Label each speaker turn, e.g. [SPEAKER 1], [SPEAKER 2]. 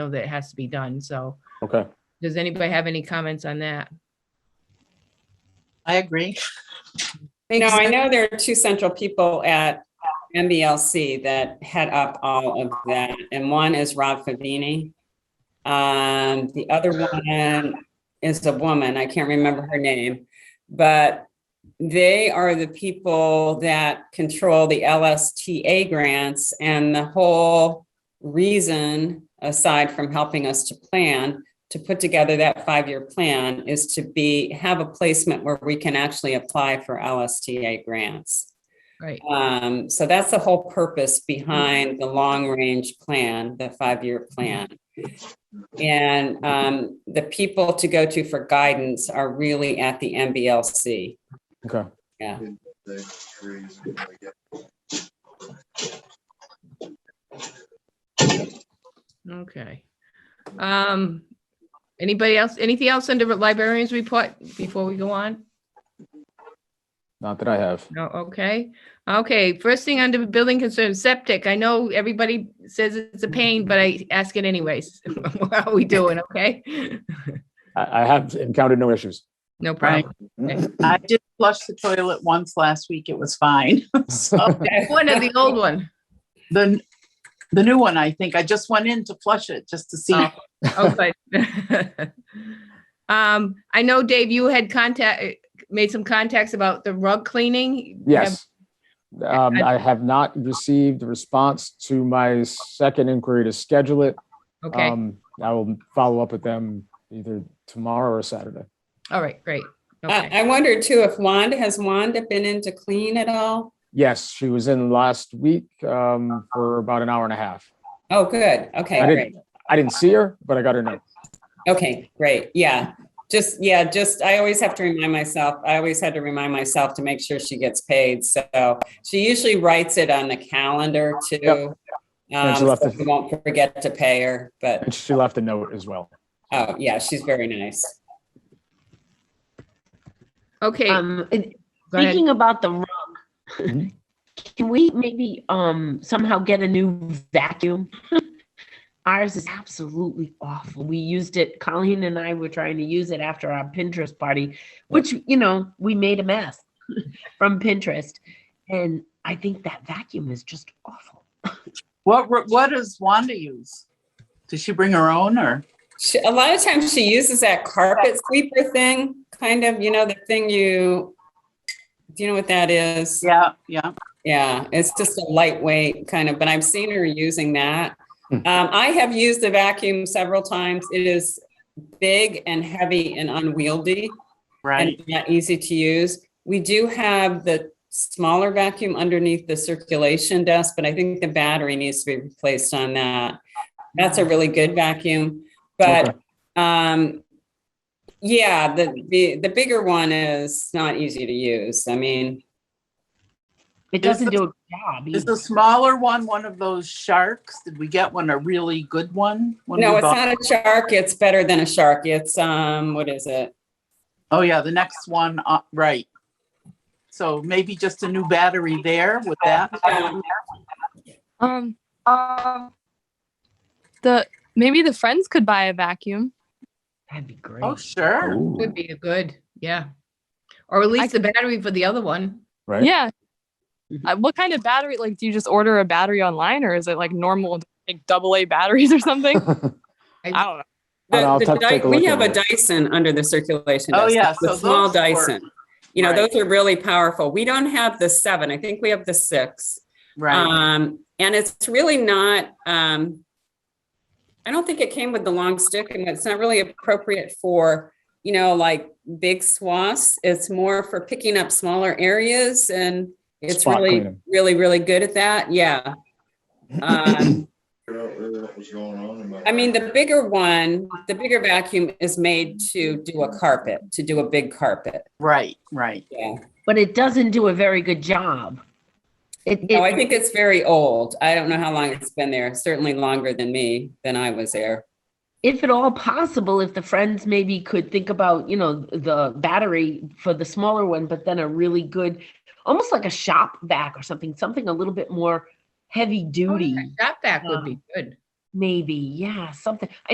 [SPEAKER 1] know that has to be done. So
[SPEAKER 2] Okay,
[SPEAKER 1] does anybody have any comments on that?
[SPEAKER 3] I agree.
[SPEAKER 4] No,
[SPEAKER 5] Makes
[SPEAKER 4] I know there are two central people at MBLC that head up all of that, and one is Rob Favini. Um, the other one is a woman, I can't remember her name, but they are the people that control the LSTA grants and the whole reason, aside from helping us to plan, to put together that five-year plan is to be, have a placement where we can actually apply for LSTA grants.
[SPEAKER 1] Right.
[SPEAKER 4] Um, so that's the whole purpose behind the long-range plan, the five-year plan. And, um, the people to go to for guidance are really at the MBLC.
[SPEAKER 2] okay.
[SPEAKER 4] Yeah.
[SPEAKER 1] Okay. Um, anybody else, anything else under librarians report before we go on?
[SPEAKER 2] Not that I have.
[SPEAKER 1] No, okay. Okay, first thing under building concern, septic. I know everybody says it's a pain, but I ask it anyways. How are we doing? Okay?
[SPEAKER 2] I, I have encountered no issues.
[SPEAKER 1] No problem.
[SPEAKER 3] I did flush the toilet once last week. It was fine. So
[SPEAKER 1] One of the old one.
[SPEAKER 3] the, the new one, I think, I just went in to flush it just to see.
[SPEAKER 1] Oh. Okay. Um, I know Dave, you had contact, made some contacts about the rug cleaning.
[SPEAKER 2] Yes. Um, I have not received a response to my second inquiry to schedule it.
[SPEAKER 1] Okay,
[SPEAKER 2] Um, I will follow up with them either tomorrow or Saturday.
[SPEAKER 1] all right, great. Okay.
[SPEAKER 4] I, I wonder too if Wanda, has Wanda been in to clean at all?
[SPEAKER 2] Yes, she was in last week, um, for about an hour and a half.
[SPEAKER 4] Oh, good. Okay,
[SPEAKER 2] I
[SPEAKER 4] great.
[SPEAKER 2] didn't, I didn't see her, but I got her note.
[SPEAKER 4] Okay, great. Yeah. Just, yeah, just, I always have to remind myself, I always had to remind myself to make sure she gets paid. So she usually writes it on the calendar too. Um,
[SPEAKER 2] And she left
[SPEAKER 4] so
[SPEAKER 2] it-
[SPEAKER 4] we won't forget to pay her, but,
[SPEAKER 2] And she left a note as well.
[SPEAKER 4] oh, yeah, she's very nice.
[SPEAKER 1] Okay,
[SPEAKER 6] Um, and
[SPEAKER 1] go ahead.
[SPEAKER 6] thinking about the rug,
[SPEAKER 2] Mhm.
[SPEAKER 6] can we maybe, um, somehow get a new vacuum? Ours is absolutely awful. We used it, Colleen and I were trying to use it after our Pinterest party, which, you know, we made a mess from Pinterest. And I think that vacuum is just awful.
[SPEAKER 3] What, ru- what does Wanda use? Does she bring her own or?
[SPEAKER 4] She, a lot of times she uses that carpet sweeper thing, kind of, you know, the thing you, do you know what that is?
[SPEAKER 3] Yeah, yeah.
[SPEAKER 4] Yeah, it's just a lightweight kind of, but I've seen her using that. Um, I have used the vacuum several times. It is big and heavy and unwieldy and
[SPEAKER 3] Right.
[SPEAKER 4] not easy to use. We do have the smaller vacuum underneath the circulation desk, but I think the battery needs to be replaced on that. That's a really good vacuum, but, um, yeah, the, the, the bigger one is not easy to use. I mean,
[SPEAKER 6] It
[SPEAKER 3] Is
[SPEAKER 6] doesn't
[SPEAKER 3] the-
[SPEAKER 6] do a job.
[SPEAKER 3] Is
[SPEAKER 6] either.
[SPEAKER 3] the smaller one one of those sharks? Did we get one, a really good one? when
[SPEAKER 4] No,
[SPEAKER 3] we
[SPEAKER 4] it's
[SPEAKER 3] bought-
[SPEAKER 4] not a shark. It's better than a shark. It's, um, what is it?
[SPEAKER 3] Oh, yeah, the next one, uh, right. So maybe just a new battery there with that.
[SPEAKER 4] Uh,
[SPEAKER 7] Um, the maybe the friends could buy a vacuum.
[SPEAKER 6] That'd be great.
[SPEAKER 3] Oh, sure.
[SPEAKER 1] Would be good, yeah. Or at least the battery for the other one.
[SPEAKER 2] Right?
[SPEAKER 7] Yeah. Uh, what kind of battery? Like, do you just order a battery online, or is it like normal, like double A batteries or something? I don't know.
[SPEAKER 2] And I'll
[SPEAKER 4] The- the
[SPEAKER 2] take- take a
[SPEAKER 4] Dy-
[SPEAKER 2] look
[SPEAKER 4] We
[SPEAKER 2] at
[SPEAKER 4] have a
[SPEAKER 2] it.
[SPEAKER 4] Dyson under the circulation.
[SPEAKER 3] Oh,
[SPEAKER 4] desk.
[SPEAKER 3] yeah,
[SPEAKER 4] It's the
[SPEAKER 3] so
[SPEAKER 4] Small
[SPEAKER 3] those work.
[SPEAKER 4] Dyson. You know,
[SPEAKER 3] Right.
[SPEAKER 4] those are really powerful. We don't have the seven. I think we have the six.
[SPEAKER 3] Right.
[SPEAKER 4] Um, and it's really not, um, I don't think it came with the long stick and it's not really appropriate for, you know, like big swaths. It's more for picking up smaller areas and it's
[SPEAKER 2] Spot
[SPEAKER 4] really,
[SPEAKER 2] cleaning.
[SPEAKER 4] really, really good at that. Yeah. Um, I mean, the bigger one, the bigger vacuum is made to do a carpet, to do a big carpet.
[SPEAKER 3] Right, right.
[SPEAKER 4] Yeah.
[SPEAKER 6] But it doesn't do a very good job. It,
[SPEAKER 4] No, Oh, I
[SPEAKER 6] it-
[SPEAKER 4] think it's very old. I don't know how long it's been there, certainly longer than me, than I was there.
[SPEAKER 6] if at all possible, if the friends maybe could think about, you know, the battery for the smaller one, but then a really good, almost like a shop vac or something, something a little bit more heavy duty.
[SPEAKER 1] That back would be good.
[SPEAKER 6] maybe, yeah, something. I